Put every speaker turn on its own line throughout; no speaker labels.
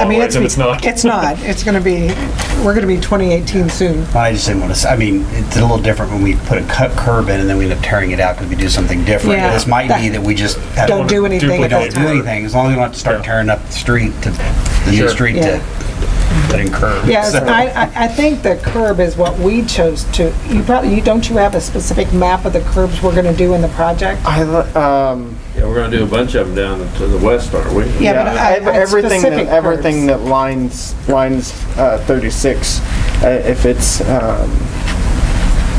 I mean, it's,
Otherwise, if it's not.
It's not. It's going to be, we're going to be 2018 soon.
Well, I just didn't want to, s- I mean, it's a little different when we put a cut curb in and then we end up tearing it out because we do something different.
Yeah.
This might be that we just. have-
Don't do anything
We
at that
don't do
time.
anything, as long as we don't have to start
Yeah.
tearing up the street to, the new
Sure.
street
Yeah.
to, that incur.
Yes,
So-
I, I- I think the curb is what we chose to, you probably, you don't you have a specific map of the curbs we're going to do in the project?
I, li- um,
Yeah, we're gonna do a bunch of them down to the west, aren't we?
Yeah, but I-
yeah, ev-
I had
everything, that-
specific
everything
curves.
that lines, lines, uh, thirty-six, uh, if it's, um,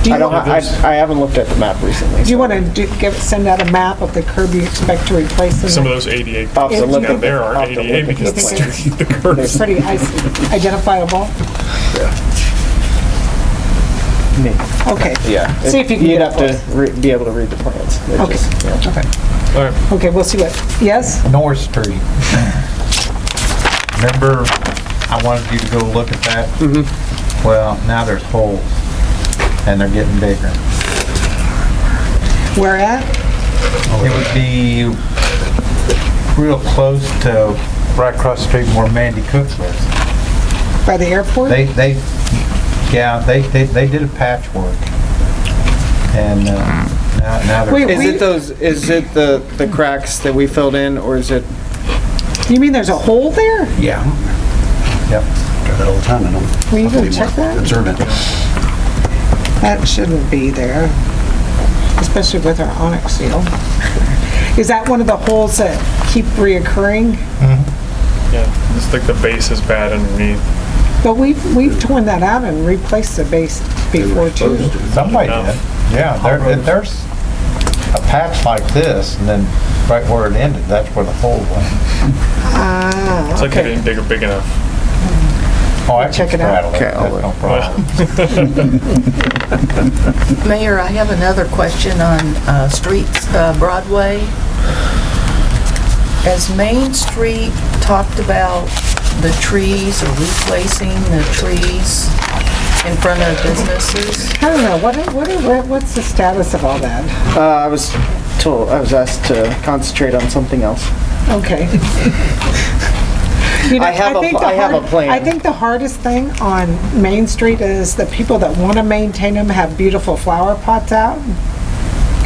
Do
I
you,
don't,
want-
I, I haven't looked at the map recently.
do you
so-
want to do, give, send out a map of the curb you expect to replace? in
Some of
the-
those ADA
I'll have to
If
look
you
at
can-
down there
I'll
are
have
ADA
to look at
because
the
the
plan.
street, the curves.
Pretty ice- identifiable.
Me.
Okay.
Yeah.
See if you can
You'd
get
have to re- be able to read the plans. It
Okay.
just- yeah.
Okay.
All right,
Okay, we'll see what, yes?
North Street. Remember, I wanted you to go look at that? Well, now there's holes, and they're getting bigger.
Where at?
It would be real close to right across the street where Mandy Cook lives.
By the airport?
They, they, yeah, they, they, they did a patchwork. And, uh, now, now
Wait,
Is
they're,
We-
it those, is it the, the cracks that we filled in, or is it,
You mean there's a hole there?
Yeah.
yep.
Drive that all the time, I don't.
Will you go
I'll be more
check that?
Observant.
That shouldn't be there, especially with our onyx seal. Is that one of the holes that keep reoccurring?
yeah, it's like the base is bad underneath.
But we've, we've torn that out and replaced the base before too.
Somebody did, yeah, there, if there's a patch like this, and then right where it ended, that's where the hole went.
It's
Ah,
like it
okay.
ain't big or big enough.
Oh, I can
Check it out.
straddle
Okay, I'll
That's
look.
no problem.
Mayor, I have another question on uh, streets, uh, Broadway. As Main Street talked about the trees or replacing the trees in front of businesses,
I don't know, what, what, what- what's the status of all that?
uh, I was told, I was asked to concentrate on something else.
Okay. You know,
I have a-
think the
I have a
hard-
plan.
I think the hardest thing on Main Street is the people that want to maintain them have beautiful flower pots out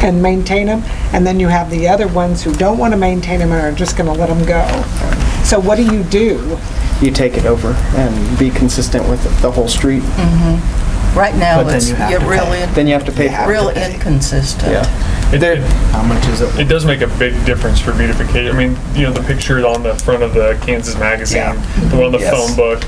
and maintain them, and then you have the other ones who don't want to maintain them and are just going to let them go. So what do you do?
You take it over and be consistent with the whole street,
right now it's yeah, real
then
in-
you have to pay for it.
real inconsistent.
Yeah.
It-
There-
it-
How much is it?
It does make a big difference for beautification. I mean, you know, the picture on the front of the Kansas magazine, the one on the
Yes.
phone book.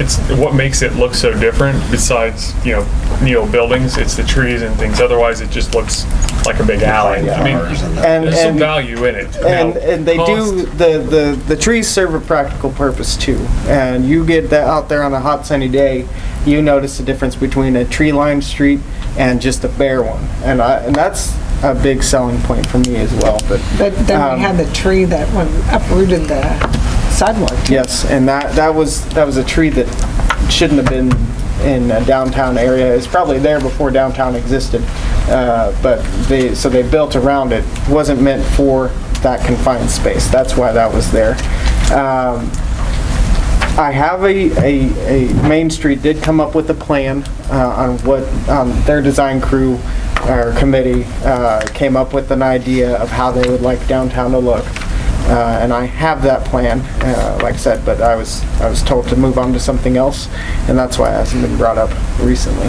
It's what makes it look so different. Besides, you know, neo buildings, it's the trees and things. Otherwise, it just looks like a big alley. I
Cars
mean,
and the-
And,
there's some
and,
value in it.
and,
Now,
and they
cost-
do, the, the, the trees serve a practical purpose too. And you get that out there on a hot sunny day, you notice the difference between a tree lined street and just a bare one. And I, and that's a big selling point for me as well, but.
But then
Um,
we had the tree that went uprooted the sidewalk.
Yes, and that, that was, that was a tree that shouldn't have been in a downtown area. It's probably there before downtown existed, uh, but they, so they built around it. Wasn't meant for that confined space. That's why that was there. Um, I have a, a, a, Main Street did come up with a plan uh, on what, um, their design crew or committee uh, came up with an idea of how they would like downtown to look. Uh, And I have that plan, uh, like I said, but I was, I was told to move on to something else, and that's why it hasn't been brought up recently.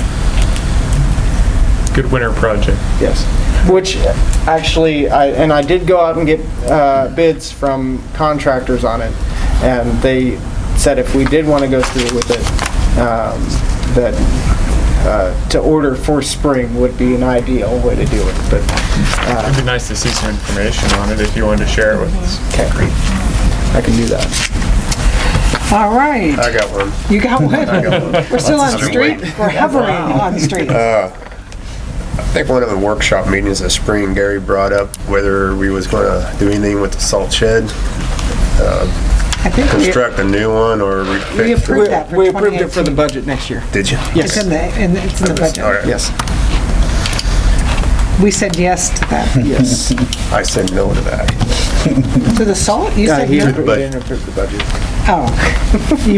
good winter project.
Yes, which uh, actually, I, and I did go out and get uh, bids from contractors on it, and they said if we did want to go through with it, um, that uh, to order for spring would be an ideal way to do it, but uh,
It'd be nice to see some information on it if you wanted to share it with us.
I can do that.
All right.
I got one.
You got one? We're still on street, we're hovering on street.
I think one of the workshop meetings this spring, Gary brought up whether we was gonna do anything with the salt shed,
I think we-
construct a new one or re-
we
fix
approved
it.
that
We
for
approved it for the
2018.
budget next year.
Did you?
It's in
Yes,
the, in the- it's in the budget.
Alright,
yes,
We said yes to that.
yes.
I said no to that.
To the salt, you
Uh,
said
He
no?
approved- didn't approve the budget.
Oh. You